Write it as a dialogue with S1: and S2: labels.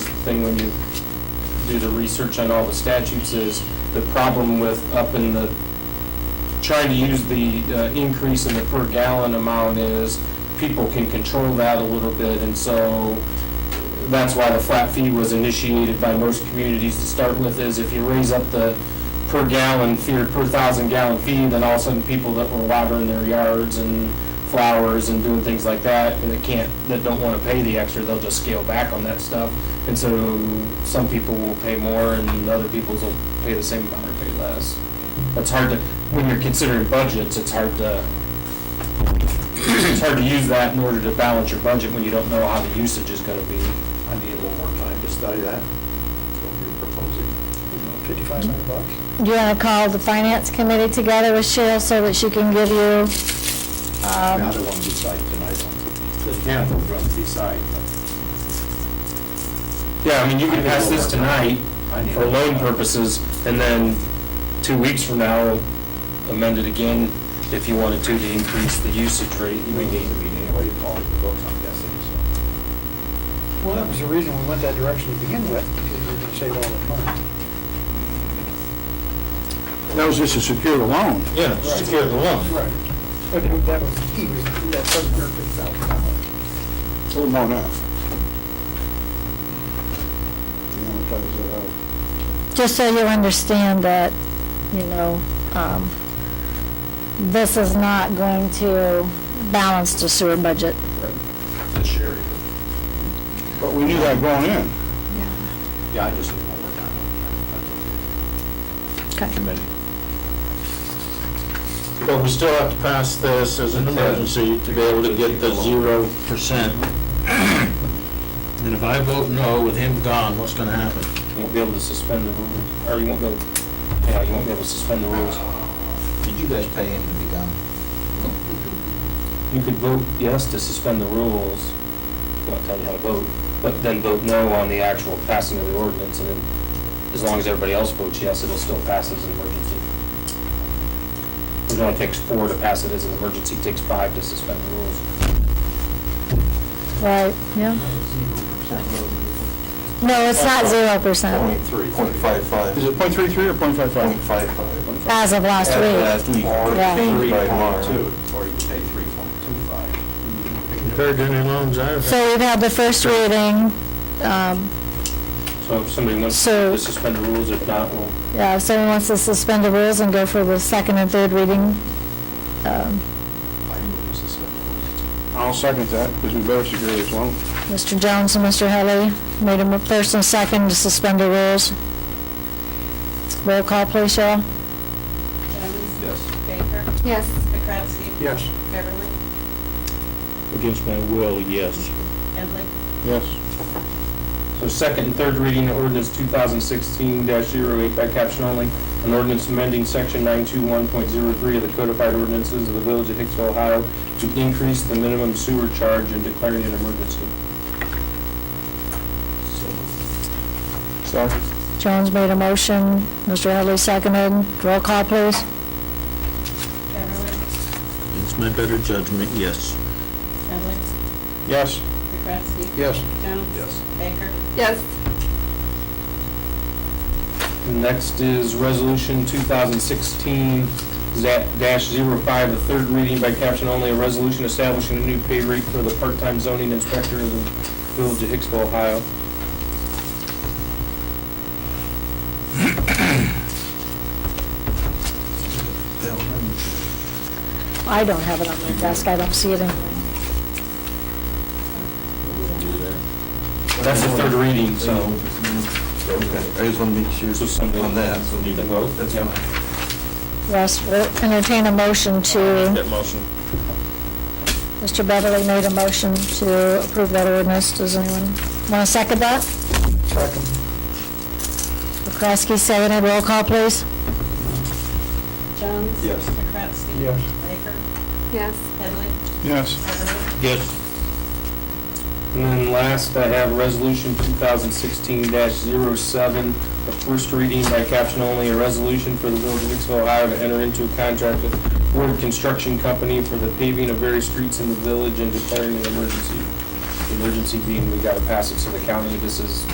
S1: thing when you do the research on all the statutes is the problem with up in the, trying to use the uh, increase in the per gallon amount is people can control that a little bit, and so that's why the flat fee was initiated by most communities to start with, is if you raise up the per gallon fee, or per thousand gallon fee, then all of a sudden people that were watering their yards and flowers and doing things like that, and that can't, that don't wanna pay the extra, they'll just scale back on that stuff. And so some people will pay more and other people's will pay the same amount or pay less. That's hard to, when you're considering budgets, it's hard to, it's hard to use that in order to balance your budget when you don't know how the usage is gonna be.
S2: I need a little more time to study that, what you're proposing. Fifty-five hundred bucks?
S3: Do you want to call the finance committee together with Cheryl so that she can give you,
S2: Now,
S3: um,
S2: they want to decide tonight on, the town is going to decide, but
S1: Yeah, I mean, you can pass this tonight
S2: I need.
S1: for loan purposes, and then two weeks from now, amend it again if you wanted to, to increase the usage rate.
S2: We need to meet anyway to call it the books, I'm guessing,
S4: Well, that was the reason we went that direction to begin with, because we were gonna save all the money.
S5: That was just to secure the loan.
S1: Yeah, secure the loan.
S4: Right. But it- that was, he was, that seven hundred fifty thousand dollars.
S5: Oh, no, no. You wanna try this out?
S3: just so you understand that, you know, um, this is not going to balance the sewer budget.
S2: so, this year.
S5: But we knew that going in.
S2: Yeah, I just need one more time. That's
S3: Okay.
S6: But we still have to pass this as an emergency to be able to get the zero percent. And if I vote no with him gone, what's gonna happen?
S1: You won't be able to suspend the rules, or you won't be, able- yeah, you won't be able to suspend the rules.
S2: okay. Did you guys pay him to be gone?
S1: You could vote yes to suspend the rules, not tell you how to vote, but then vote no on the actual passing of the ordinance, and then as long as everybody else votes yes, it'll still pass as an emergency. It only takes four to pass it as an emergency, it takes five to suspend the rules.
S3: Right, yeah. No, it's not zero percent
S2: Three. Point five five.
S5: Is it point three three or point five five?
S2: five five.
S3: as of last week.
S2: week. Or
S3: Yeah.
S2: three point two, or you pay three point two five.
S6: Compared to any loans I've had.
S3: So we've had the first reading, um,
S1: So if somebody wants
S3: So-
S1: to suspend the rules, if not, we'll
S3: Yeah, if someone wants to suspend the rules and go for the second and third reading, um,
S2: I move to suspend the rules.
S5: I'll second that, because we better secure this loan.
S3: Mr. Jones and Mr. Helly made a mo- first and second to suspend the rules. Roll call, please, Cheryl.
S7: Jones?
S2: Yes.
S7: Baker?
S3: Yes.
S7: McCrasky?
S4: Yes.
S7: Beverly?
S6: Against my will, yes.
S7: Evelyn?
S5: Yes.
S1: So second and third reading of ordinance 2016-08 by caption only, an ordinance amending section 921.03 of the codified ordinances of the village of Hicksville, Ohio to increase the minimum sewer charge and declaring an emergency.
S5: Sorry.
S3: Jones made a motion, Mr. Helly seconded. Roll call, please.
S7: Beverly?
S6: Against my better judgment, yes.
S7: Evelyn?
S5: Yes.
S7: McCrasky?
S4: Yes.
S7: Jones?
S2: Yes.
S7: Baker?
S1: Next is resolution 2016-05, the third reading by caption only, a resolution establishing a new pay rate for the part-time zoning inspector of the village of Hicksville, Ohio.
S3: I don't have it on my desk, I don't see it anywhere.
S1: That's the third reading, so.
S2: Okay, I just want to make sure
S1: So something-
S2: on that. so
S1: Need to vote?
S2: That's
S1: Yeah.
S2: fine.
S3: Yes, we'll entertain a motion to,
S6: That motion.
S3: Mr. Beverly made a motion to approve that ordinance. Does anyone want to second that?
S4: Second.
S3: McCrasky seconded. Roll call, please.
S7: Jones?
S2: Yes.
S7: McCrasky?
S4: Yes.
S7: Baker?
S8: Yes.
S7: Evelyn?
S5: Yes.
S7: Beverly?
S6: Yes.
S1: And then last, I have Resolution 2016-07, the first reading by caption only, a resolution for the Village of Hicksville, Ohio to enter into a contract with Ward Construction Company for the paving of various streets in the village and declaring an emergency. The Emergency being, we gotta pass it to the county, this is